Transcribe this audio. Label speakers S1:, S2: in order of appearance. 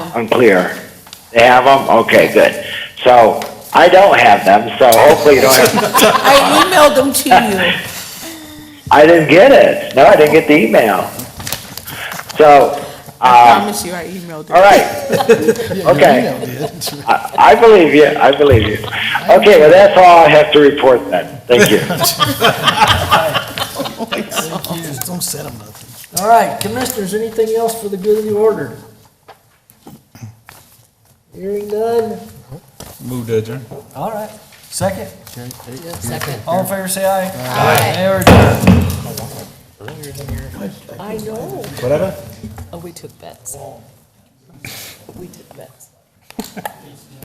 S1: Unclear. They have them? Okay, good. So I don't have them, so hopefully you don't have,
S2: I emailed them to you.
S1: I didn't get it. No, I didn't get the email. So,
S2: I
S1: um,
S2: promise you, I emailed them.
S1: all right, okay. I I believe you, I believe you. Okay, well, that's all I have to report then. Thank you.
S3: Just don't set them nothing.
S4: All right, commissioners, anything else for the good of the order? Hearing none,
S5: Move to adjourn.
S4: all right, second,
S6: Second.
S4: all in favor, say aye. Aye. They are done.
S6: I know.
S5: Whatever.
S6: Oh, we took bets. We took bets.